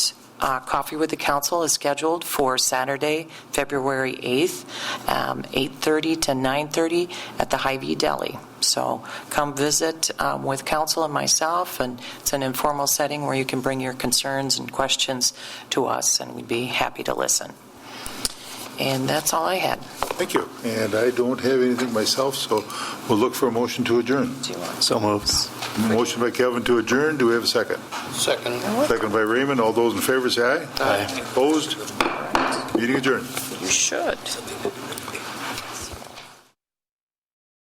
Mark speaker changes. Speaker 1: uh, Coffee with the Council is scheduled for Saturday, February 8th, um, 8:30 to 9:30 at the Hy-Vee Deli. So come visit um, with council and myself, and it's an informal setting where you can bring your concerns and questions to us, and we'd be happy to listen. And that's all I had.
Speaker 2: Thank you. And I don't have anything myself, so we'll look for a motion to adjourn.
Speaker 1: Do you want-
Speaker 3: So moved.
Speaker 2: Motion by Kevin to adjourn. Do we have a second?
Speaker 4: Second.
Speaker 2: Second by Raymond. All those in favor say aye. Aye. Opposed? Meeting adjourned.
Speaker 1: You should.